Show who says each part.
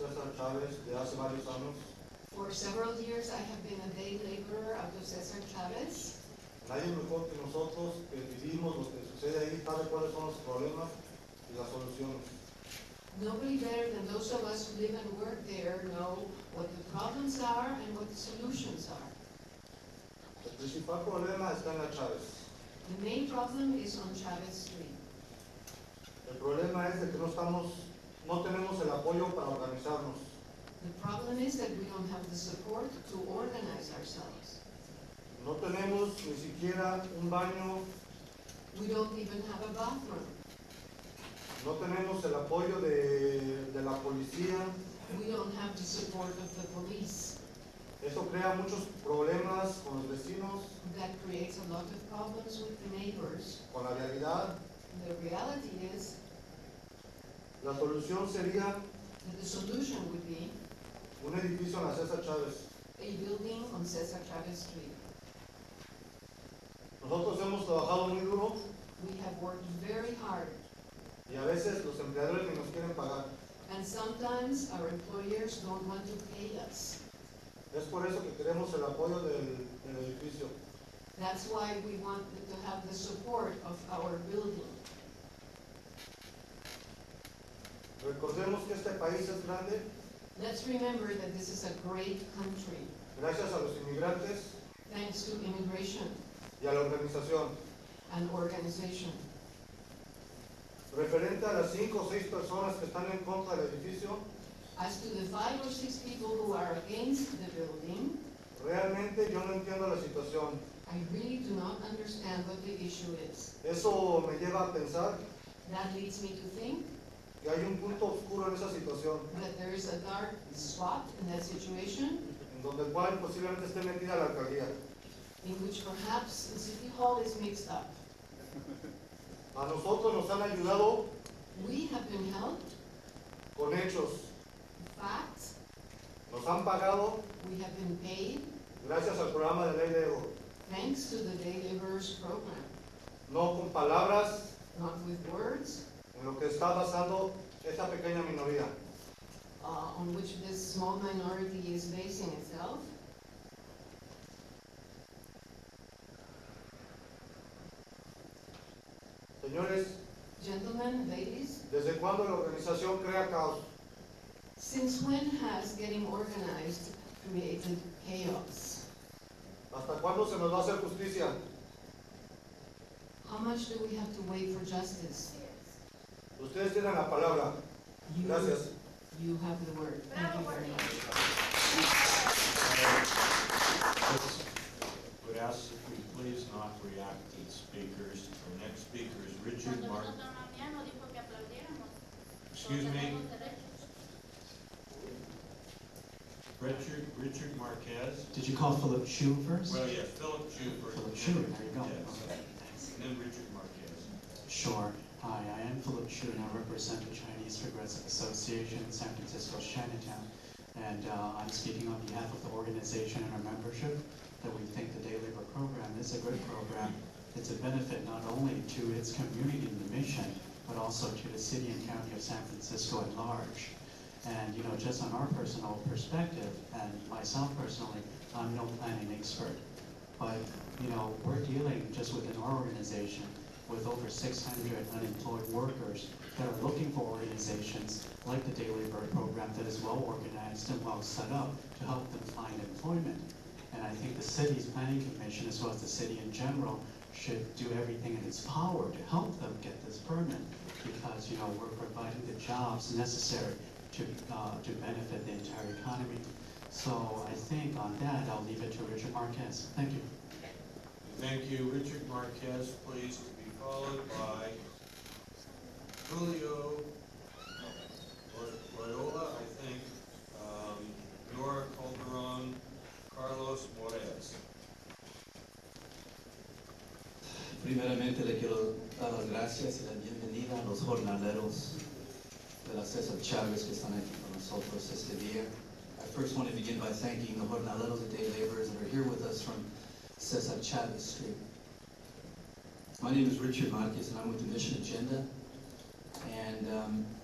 Speaker 1: Chávez de hace varios años.
Speaker 2: For several years, I have been a day laborer of Los Cesar Chavez.
Speaker 1: Nadie mejor que nosotros que vivimos lo que sucede ahí, sabe cuáles son los problemas y las soluciones.
Speaker 2: Nobody better than those of us who live and work there know what the problems are and what the solutions are.
Speaker 1: El principal problema está en la Chávez.
Speaker 2: The main problem is on Chavez Street.
Speaker 1: El problema es de que no estamos, no tenemos el apoyo para organizarnos.
Speaker 2: The problem is that we don't have the support to organize ourselves.
Speaker 1: No tenemos ni siquiera un baño,
Speaker 2: We don't even have a bathroom.
Speaker 1: no tenemos el apoyo de, de la policía.
Speaker 2: We don't have the support of the police.
Speaker 1: Eso crea muchos problemas con los vecinos,
Speaker 2: That creates a lot of problems with the neighbors.
Speaker 1: con la realidad.
Speaker 2: The reality is
Speaker 1: La solución sería
Speaker 2: that the solution would be
Speaker 1: un edificio en la César Chávez.
Speaker 2: a building on Cesar Chavez Street.
Speaker 1: Nosotros hemos trabajado muy duro
Speaker 2: We have worked very hard,
Speaker 1: y a veces los empleadores ni nos quieren pagar.
Speaker 2: and sometimes our employers don't want to pay us.
Speaker 1: Es por eso que queremos el apoyo del, del edificio.
Speaker 2: That's why we want to have the support of our building.
Speaker 1: Recordemos que este país es grande
Speaker 2: Let's remember that this is a great country,
Speaker 1: gracias a los inmigrantes
Speaker 2: thanks to immigration
Speaker 1: y a la organización.
Speaker 2: and organization.
Speaker 1: Referente a las cinco o seis personas que están en contra del edificio,
Speaker 2: As to the five or six people who are against the building,
Speaker 1: realmente yo no entiendo la situación.
Speaker 2: I really do not understand what the issue is.
Speaker 1: Eso me lleva a pensar
Speaker 2: That leads me to think
Speaker 1: que hay un punto oscuro en esa situación,
Speaker 2: that there is a dark spot in that situation
Speaker 1: en donde el cual posiblemente esté metida la alcaldía.
Speaker 2: in which perhaps the City Hall is mixed up.
Speaker 1: A nosotros nos han ayudado
Speaker 2: We have been helped,
Speaker 1: con hechos,
Speaker 2: facts,
Speaker 1: nos han pagado
Speaker 2: we have been paid,
Speaker 1: gracias al programa de ley de Ego.
Speaker 2: thanks to the Day Laborers Program,
Speaker 1: no con palabras
Speaker 2: not with words,
Speaker 1: en lo que está basando esta pequeña minoría.
Speaker 2: uh, on which this small minority is basing itself.
Speaker 1: Señores,
Speaker 2: Gentlemen, ladies,
Speaker 1: ¿desde cuándo la organización crea caos?
Speaker 2: since when has getting organized created chaos?
Speaker 1: ¿Hasta cuándo se nos va a hacer justicia?
Speaker 2: How much do we have to wait for justice?
Speaker 1: Ustedes tienen la palabra.
Speaker 2: You-
Speaker 1: Gracias.
Speaker 2: You have the word. Thank you very much.
Speaker 3: Would ask if we please not react to the speakers. Our next speaker is Richard
Speaker 4: Cuando
Speaker 3: Martin.
Speaker 4: nosotros nos miramos, dijo que aplaudiéramos.
Speaker 3: Excuse
Speaker 4: Todos
Speaker 3: me,
Speaker 4: tenemos derechos.
Speaker 3: Richard, Richard Marquez.
Speaker 5: Did you call Philip Chu first?
Speaker 3: Well, yeah, Philip Schubert.
Speaker 5: Philip Chu, there you go.
Speaker 3: Yes.
Speaker 5: Okay, thanks.
Speaker 3: And then Richard Marquez.
Speaker 5: Sure. Hi, I am Philip Chu and I represent the Chinese Progressive Association in San Francisco's Chinatown. And uh, I'm speaking on behalf of the organization and our membership that we think the Day Labor Program is a good program. It's a benefit not only to its community and the mission, but also to the city and county of San Francisco at large. And, you know, just on our personal perspective, and myself personally, I'm no planning expert. But, you know, we're dealing just within our organization with over 600 unemployed workers that are looking for organizations like the Daily Bird Program that is well organized and well set up to help them find employment. And I think the city's planning commission, as well as the city in general, should do everything in its power to help them get this permit because, you know, we're providing the jobs necessary to, uh, to benefit the entire economy. So I think on that, I'll leave it to Richard Marquez. Thank you.
Speaker 3: Thank you, Richard Marquez, please, to be followed by Julio Loy- Loyola, I think, um, Nora Calderon, Carlos Morez.
Speaker 6: Primeramente le quiero dar las gracias y la bienvenida a los jornaleros de la César Chávez que están aquí con nosotros este día. I first want to begin by thanking the jornaleros, the day laborers that are here with us from Cesar Chavez Street. My name is Richard Marquez and I'm with the Mission Agenda. And um,